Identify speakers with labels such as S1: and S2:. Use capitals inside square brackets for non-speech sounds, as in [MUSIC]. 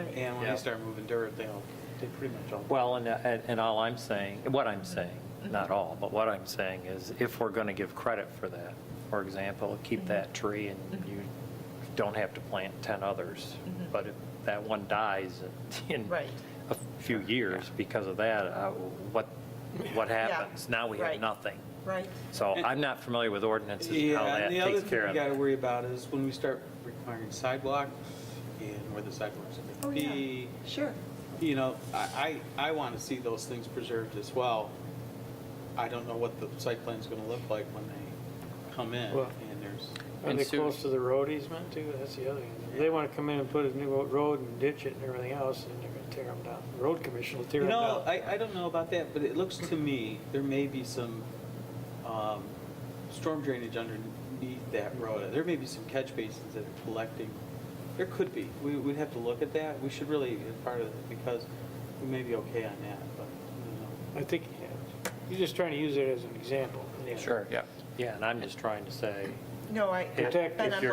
S1: And when
S2: Yeah.
S1: you start moving dirt, they'll, they pretty much all.
S2: Well, and, uh, and and all I'm saying, what I'm saying, not
S3: Mm-hmm.
S2: all, but what I'm saying is if we're going to give credit for that, for example,
S3: Mm-hmm.
S2: keep that tree and you don't have to plant 10 others. But if that one dies in
S3: Mm-hmm.
S2: [LAUGHS]
S3: Right.
S2: a few years because of that, uh, what, what happens? Now we have
S3: right.
S2: nothing.
S3: right?
S2: So I'm not familiar with ordinances, and how
S1: Yeah,
S2: that
S1: and the other
S2: takes
S1: thing
S2: care
S1: you
S2: of
S1: gotta
S2: it.
S1: worry about is when we start requiring sidewalks and where the sidewalks are
S3: Oh,
S1: gonna
S3: yeah,
S1: be.
S3: sure.
S1: You know, I, I, I wanna see those things preserved as well. I don't know what the site plan's gonna look like when they come in
S4: Well-
S1: and there's,
S4: Are
S5: And
S4: they
S5: Sue-
S4: close to the road easement too? That's the other thing. If They want to come in and put a new road and ditch it and everything else, and they're going to tear them down. The Road commission will tear
S1: you
S4: them
S1: know,
S4: down.
S1: I, I don't know about that, but it looks to me, there may be some, um, storm drainage underneath that road. There may be some catch basins that are collecting, there could be, we, we'd have to look at that, we should really, as part of it, because we may be okay on that, but, I
S4: I think, yeah, you're just trying to use it as an example.
S1: don't know.
S5: Sure, yeah.
S2: Yeah, and I'm just trying to say,
S3: No, I,
S4: Protect
S3: but
S4: if
S3: I'm
S2: you're